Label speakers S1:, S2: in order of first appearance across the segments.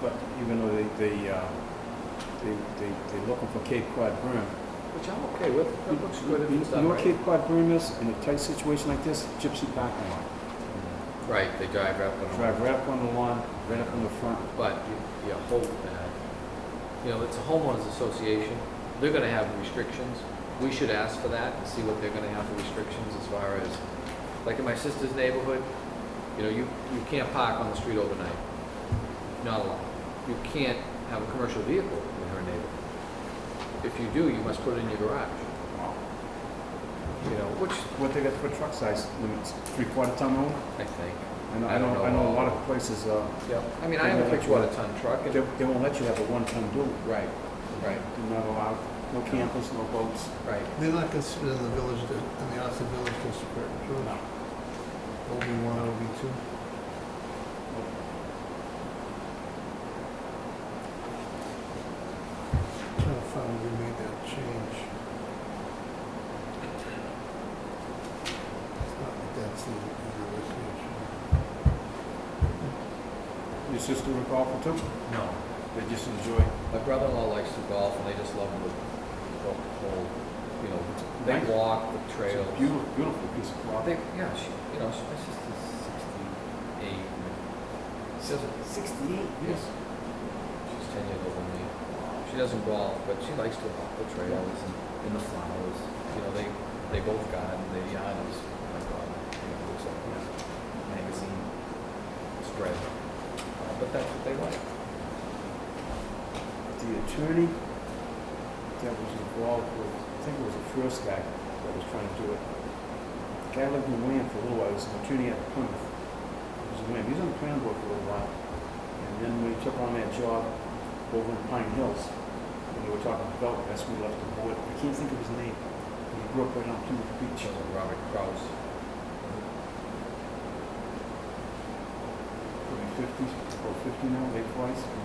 S1: But even though they, they, uh, they, they, they're looking for Cape Cod berm.
S2: Which I'm okay with, that looks good if
S1: You-
S2: it's
S1: You
S2: done
S1: know what
S2: right.
S1: Cape Cod berm is, in a tight situation like this, gypsy parking lot.
S2: Right, they drive up and
S1: Drive right up on the lawn, right up on the front.
S2: But you, you hope that, you know, it's a homeowners association, they're gonna have restrictions. We should ask for that and see what they're gonna have for restrictions as far as, like in my sister's neighborhood, you know, you, you can't park on the street overnight. Not allowed. You can't have a commercial vehicle in her neighborhood. If you do, you must put it in your garage, you know, which
S1: What they got for truck size limits, three quarter ton only?
S2: I think,
S1: I know,
S2: I
S1: I
S2: don't
S1: know, I
S2: know.
S1: know a lot of places, uh,
S2: yeah. I mean, I have a picture of a ton truck
S1: they,
S2: and,
S1: they won't let you have a one ton dual.
S2: right, right,
S1: They're not allowed, no campers, no boats.
S2: right.
S3: They're not considered in the village, di- in the Austin Village District, true?
S1: No.
S3: OB one, OB two? Trying to find where we made that change. It's not like that's the, the resolution.
S1: Your sister a golfer too?
S2: No.
S1: They just enjoy.
S2: My brother-in-law likes to golf, and they just love the, the whole, you know, they
S1: Nice.
S2: walk the
S1: It's
S2: trails.
S1: a beautiful, beautiful piece of property.
S2: They, yeah, she, you know, she, my sister's sixty-eight. and She doesn't,
S1: Sixty-eight?
S2: yes, she's ten years older than me. She doesn't golf, but she likes to walk the trails and in the flowers. You know, they they both garden. Their yard is oh my God, you know, looks like a magazine spread. Uh, but that's what they like.
S1: The attorney that was involved with, I think it was the first guy that was trying to do it. The guy lived in William for a little while, he was an attorney at Plymouth. He was in William, he was on the planning board for a little while. And then when he took on that job over in Pine Hills, when they were talking about, that's when he left the board. I can't think of his name. He grew up right on Plymouth Beach.
S2: She was Robert Krause.
S1: Probably fifty, or fifty now, late forties.
S2: You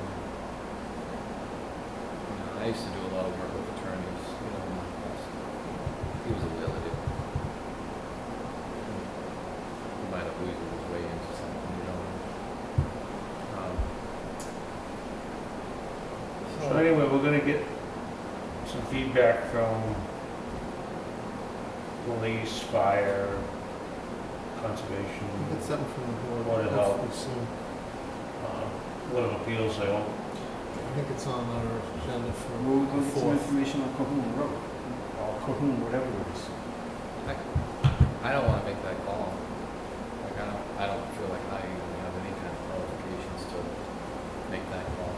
S2: know, I used to do a lot of work with attorneys, you know, in my past. He was a really good. He might have weaseled his way into something, you know. Um,
S4: So anyway, we're gonna get some feedback from police, fire, conservation,
S3: We'll Get something from the board.
S4: Board of Health.
S3: hopefully soon.
S4: uh, Board of Appeals, I hope.
S3: I think it's on our agenda for.
S1: We'll we'll
S3: the
S1: get some
S3: fourth.
S1: information on Cahoon Road, or Cahoon, whatever it is.
S2: I don't wanna make that call. Like, I don't, I don't feel like I even have any kind of qualifications to make that call.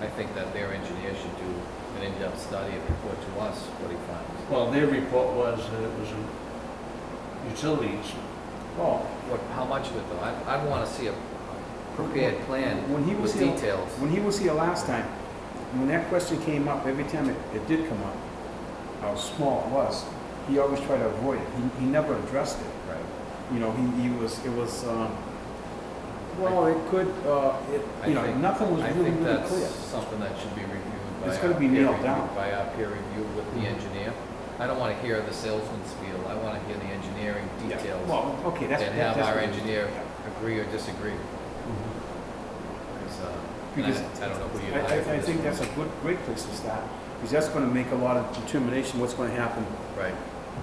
S2: I think that their engineer should do an in-depth study and report to us what he finds.
S4: Well, their report was that it was a utilities.
S1: Well,
S2: What, how much of it though? I, I'd wanna see a prepared plan
S1: When he was
S2: with
S1: here,
S2: details.
S1: when he was here last time, when that question came up, every time it, it did come up, how small it was, he always tried to avoid it. He, he never addressed it.
S2: Right.
S1: You know, he, he was, it was, um, well, it could, uh, it,
S2: I
S1: you know,
S2: think-
S1: nothing was
S2: I
S1: really,
S2: think
S1: really
S2: that's
S1: clear.
S2: something that should be reviewed by.
S1: It's
S2: our
S1: gotta be
S2: peer
S1: nailed
S2: review-
S1: down.
S2: By our peer review with the
S1: Mhm.
S2: engineer. I don't wanna hear the salesman's spiel, I wanna hear the engineering
S1: Yeah.
S2: details
S1: Well, okay, that's.
S2: and have
S1: that's
S2: our
S1: what-
S2: engineer
S1: yeah.
S2: agree or disagree. Mm-hmm. Because, uh, and
S1: Because
S2: I, I don't know who you
S1: I,
S2: hire for
S1: I, I
S2: this
S1: think
S2: one.
S1: that's a good, great place to start, because that's gonna make a lot of determination what's gonna happen,
S2: Right,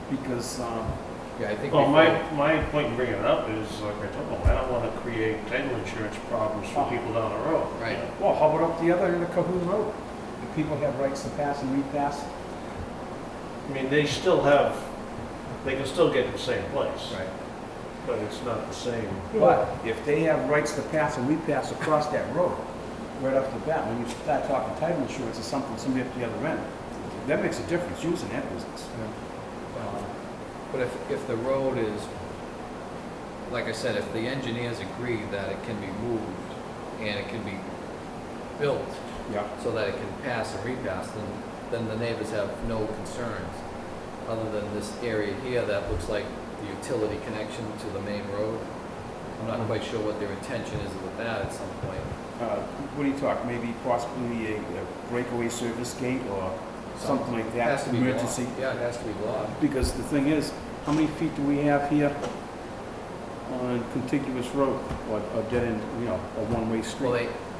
S1: because, um,
S2: yeah, I think.
S4: Well,
S2: we
S4: my,
S2: felt-
S4: my point in bringing it up is, like I told them, I don't wanna create title insurance problems for people down the road.
S2: Oh. Right.
S1: Well, how about up the other end of Cahoon Road? Do people have rights to pass and repass?
S4: I mean, they still have, they can still get to the same place,
S2: Right,
S4: but it's not the same.
S1: But if they have rights to pass and repass across that road, right off the bat, when you start talking title insurance or something, somebody up the other end, that makes a difference, using that business.
S2: Um, But if, if the road is, like I said, if the engineers agree that it can be moved and it can be built,
S1: Yeah.
S2: so that it can pass and repass, then, then the neighbors have no concerns, other than this area here that looks like the utility connection to the main road. I'm not quite sure what their intention is with that at some point.
S1: Uh, what do you talk, maybe possibly a a breakaway service gate or something like
S2: It has
S1: that,
S2: to be logged.
S1: emergency?
S2: Yeah, it has to be logged.
S1: Because the thing is, how many feet do we have here on contiguous road or, or dead end, you know, a one-way street?
S2: Well, they,